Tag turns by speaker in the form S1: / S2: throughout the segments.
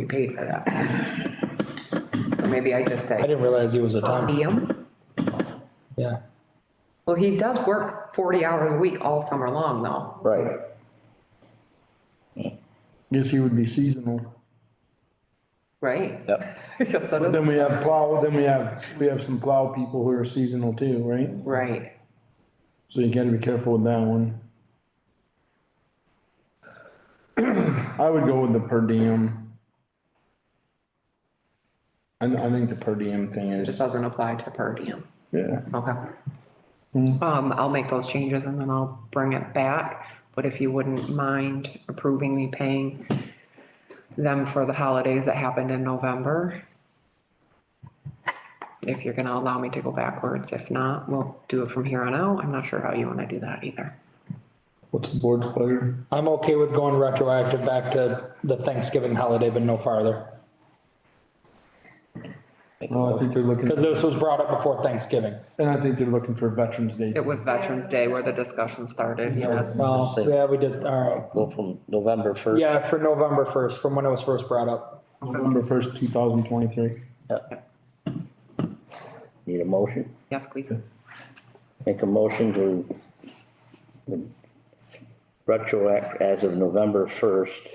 S1: paid for that. So maybe I just
S2: I
S1: say,
S2: didn't realize he was a time,
S1: medium,
S2: yeah.
S1: well, he does work forty hours a week all summer long though.
S3: Right.
S4: Guess he would be seasonal.
S1: Right?
S3: Yep.
S1: Yes, that is,
S4: Then we have plow, then we have, we have some plow people who are seasonal too, right?
S1: right.
S4: So you gotta be careful with that one. I would go with the per diem. I, I think the per diem thing
S1: This
S4: is,
S1: doesn't apply to per diem.
S4: yeah.
S1: Okay. Um, I'll make those changes and then I'll bring it back, but if you wouldn't mind approving me paying them for the holidays that happened in November. If you're gonna allow me to go backwards, if not, we'll do it from here on out. I'm not sure how you wanna do that either.
S4: What's the board's pleasure?
S2: I'm okay with going retroactive back to the Thanksgiving holiday, but no farther.
S4: Well, I think they're looking,
S2: Because this was brought up before Thanksgiving.
S4: and I think they're looking for Veterans Day.
S1: It was Veterans Day where the discussion started, yeah.
S2: Well, yeah, we did, all
S3: Go from November
S2: right.
S3: first.
S2: Yeah, for November first, from when it was first brought up.
S4: November first, two thousand twenty-three.
S3: Need a motion?
S1: Yes, please.
S3: Make a motion to retroact as of November first,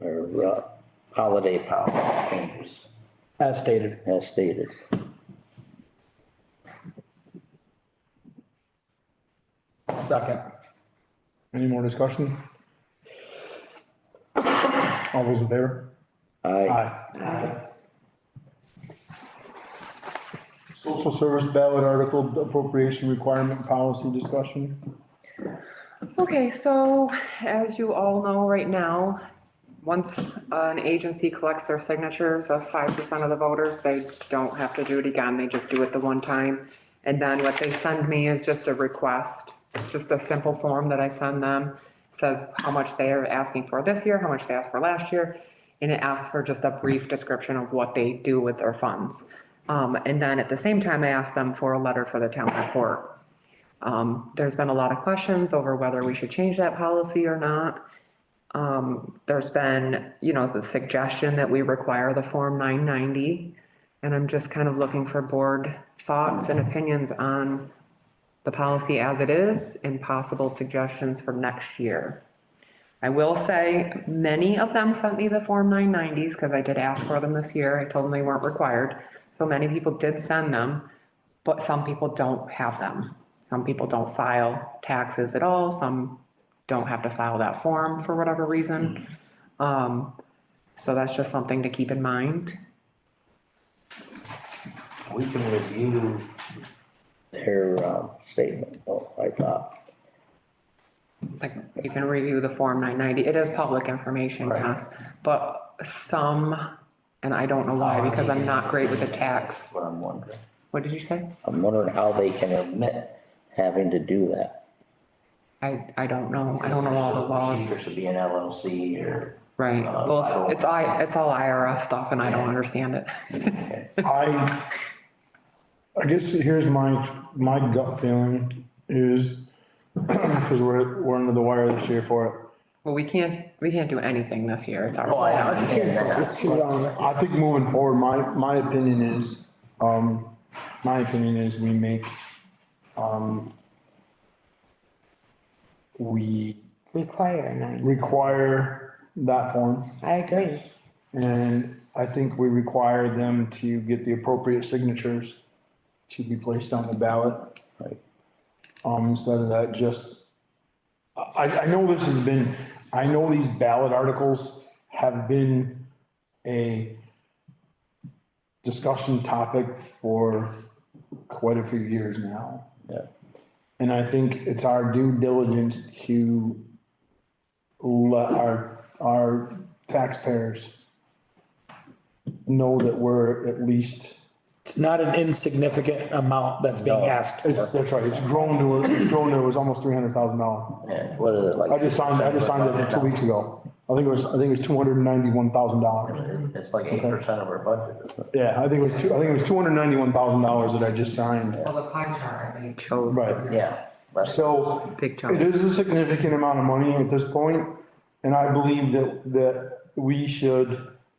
S3: or uh, holiday power changes
S2: As stated.
S3: as stated.
S2: Second.
S4: Any more discussion? All those in favor?
S3: Aye.
S4: Social service ballot article appropriation requirement policy discussion.
S1: Okay, so as you all know right now, once an agency collects their signatures of five percent of the voters, they don't have to do it again, they just do it the one time. And then what they send me is just a request, it's just a simple form that I send them, says how much they are asking for this year, how much they asked for last year. And it asks for just a brief description of what they do with their funds. Um, and then at the same time, I ask them for a letter for the town report. Um, there's been a lot of questions over whether we should change that policy or not. Um, there's been, you know, the suggestion that we require the Form nine ninety. And I'm just kind of looking for board thoughts and opinions on the policy as it is and possible suggestions for next year. I will say, many of them sent me the Form nine nineties because I did ask for them this year. I told them they weren't required. So many people did send them, but some people don't have them. Some people don't file taxes at all. Some don't have to file that form for whatever reason. Um, so that's just something to keep in mind.
S3: We can review. Their, um, statement, oh, I thought,
S1: Like, you can review the Form nine ninety. It is public information, yes, but some, and I don't know why, because I'm not great with the tax.
S3: what I'm wondering.
S1: What did you say?
S3: I'm wondering how they can admit having to do that.
S1: I, I don't know. I don't know all the laws.
S3: Procedures to be an LLC or.
S1: Right.
S3: Uh, I
S1: Well,
S3: don't-
S1: it's, it's I, it's all IRS stuff and I don't understand it.
S4: I, I guess here's my, my gut feeling is, because we're, we're under the wire this year for
S1: Well, we can't, we can't do anything this year. It's our.
S3: Oh, I understand that.
S4: it. I think moving forward, my, my opinion is, um, my opinion is we make, um, we
S5: require nine.
S4: require that form,
S5: I agree.
S4: and I think we require them to get the appropriate signatures to be placed on the ballot.
S3: Right.
S4: Um, instead of that, just, I, I know this has been, I know these ballot articles have been a discussion topic for quite a few years now.
S3: Yeah.
S4: And I think it's our due diligence to let our, our taxpayers know that we're at least,
S2: It's not an insignificant amount that's being asked
S4: it's,
S2: for.
S4: that's right, it's grown to, it's grown to, it was almost three hundred thousand dollars.
S3: Yeah, What is it like?
S4: I just signed, I just signed it two weeks ago. I think it was, I think it was two hundred and ninety-one thousand dollars.
S3: It's like eight percent of our budget, isn't it?
S4: Yeah, I think it was two, I think it was two hundred and ninety-one thousand dollars that I just signed.
S1: Well, the pie chart, I chose.
S4: Right.
S3: Yeah. That's
S4: So
S1: Big chunk.
S4: it is a significant amount of money at this point, and I believe that, that we should